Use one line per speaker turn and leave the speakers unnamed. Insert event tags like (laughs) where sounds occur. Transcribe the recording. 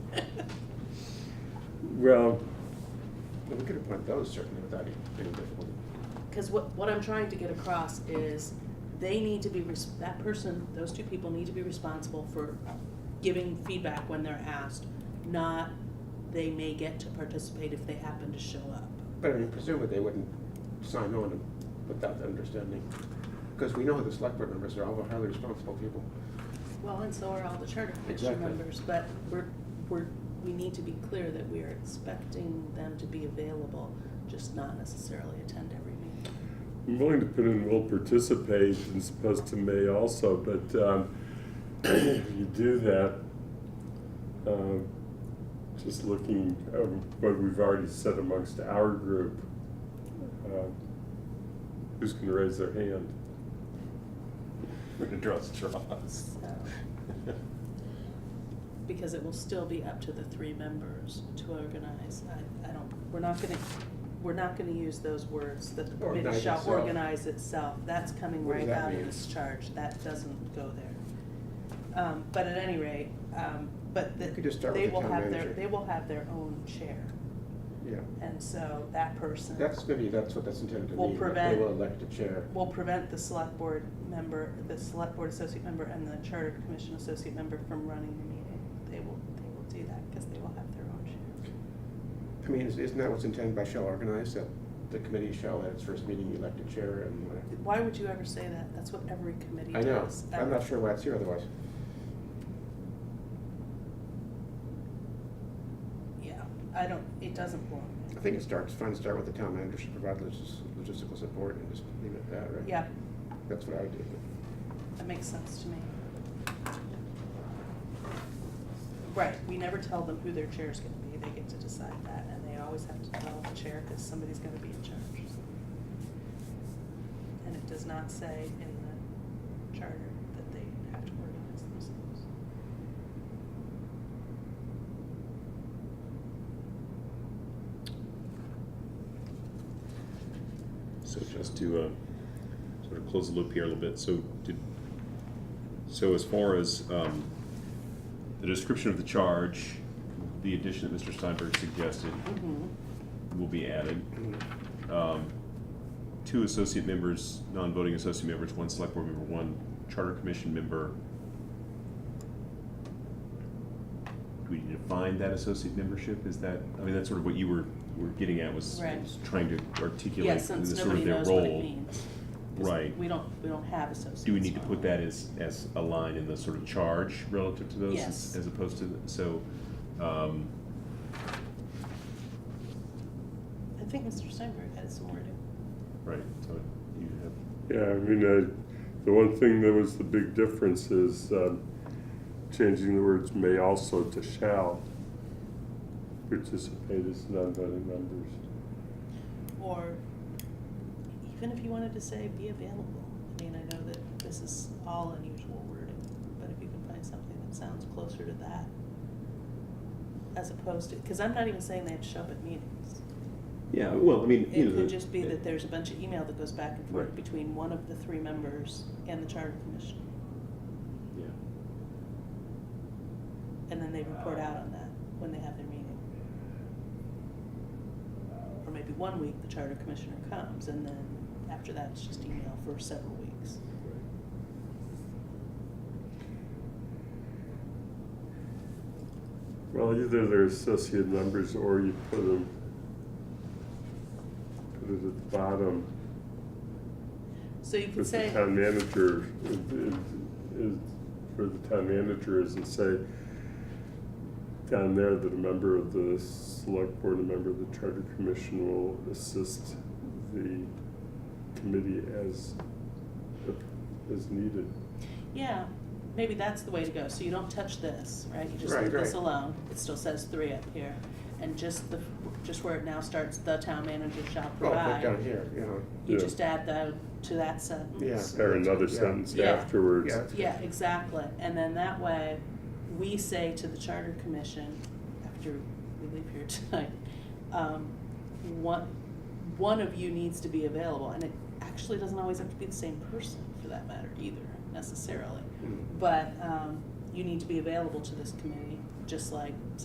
Well, we could appoint those certainly without any any difficulty.
(laughs) Because what, what I'm trying to get across is they need to be, res- that person, those two people need to be responsible for giving feedback when they're asked, not they may get to participate if they happen to show up.
But I mean, presumably they wouldn't sign on without the understanding, because we know the select board members are all highly responsible people.
Well, and so are all the charter commission
Exactly.
members, but we're, we're, we need to be clear that we are expecting them to be available, just not necessarily attend every meeting.
I'm willing to put in will participate and supposed to may also, but um, (clears throat) if you do that, um, just looking at what we've already said amongst our group, uh, who's going to raise their hand?
We're gonna draw straws.
So-
(laughs)
because it will still be up to the three members to organize. I, I don't, we're not gonna, we're not gonna use those words that the committee
Organize
shall
itself.
organize itself. That's coming
What does
right
that
out of
mean?
this charge. That doesn't go there. Um, but at any rate, um, but
You
the-
could just start with
they
the
will
town
have their,
manager.
they will have their own chair.
Yeah,
And so that person
that's maybe, that's what that's intended to
Will
mean, that they
prevent-
will elect a chair.
will prevent the select board member, the select board associate member and the charter commission associate member from running the meeting. They will, they will do that because they will have their own chair.
I mean, is- isn't that what's intended by shall organize, that the committee shall at its first meeting elect a chair and whatever?
Why would you ever say that? That's what every committee
I know,
does.
I'm not sure why it's here otherwise.
Yeah, I don't, it doesn't belong
I think it starts, fine to start with the town manager should provide logis- logistical support and just leave it at that,
there.
right?
Yeah,
That's what I would do.
that makes sense to me. Right, we never tell them who their chair's gonna be. They get to decide that, and they always have to tell the chair because somebody's gonna be in charge. And it does not say in the charter that they have to organize themselves.
So just to, um, sort of close the loop here a little bit, so did, so as far as, um, the description of the charge, the addition that Mr. Steinberg suggested will be added.
Mm-hmm.
Um, two associate members, non-voting associate members, one select board member, one charter commission member. Do we need to define that associate membership? Is that, I mean, that's sort of what you were, were getting at, was
Right.
was trying to
Yeah,
articulate the
since
sort
nobody
of their
knows what it
role.
means. 'Cause
Right.
We don't, we don't have associates.
Do we need to
on
put that as, as a line in the sort of charge relative to those?
Yes.
As opposed to, the- so, um,
I think Mr. Steinberg had some wording.
right, so you have
Yeah, I mean, I, the one thing that was the big difference is um, changing the words may also to shall participate as non-voting members.
Or even if you wanted to say be available. I mean, I know that this is all unusual wording, but if you can find something that sounds closer to that. As opposed to, because I'm not even saying they have to show up at meetings.
Yeah, well, I mean, you
It
know.
could
the-
just be that there's a bunch of email that goes back and forth
Right.
between one of the three members and the charter commission,
Yeah,
and then they report out on that when they have their meeting. Or maybe one week the charter commissioner comes, and then after that, it's just email for several weeks.
right.
Well, either they're associate members or you put them, put it at the bottom.
So you could
If the
say,
town manager, is- is- for the town manager is and say down there that a member of the select board, a member of the charter commission will assist the committee as, as needed.
yeah, maybe that's the way to go, so you don't touch this, right? You just
Right,
leave this
right.
alone, it still says three up here, and just the, just where it now starts, the town manager shall
Well, but down
provide.
here, you know,
You
Yeah.
just add that to that sentence.
Or another
Yeah.
sentence
Yeah.
afterwards.
Yeah.
Yeah, exactly, and then that way, we say to the charter commission, after we leave here (laughs) tonight, um, one, one of you needs to be available, and it actually doesn't always have to be the same person for that matter either, necessarily.
mm.
But um, you need to be available to this committee, just like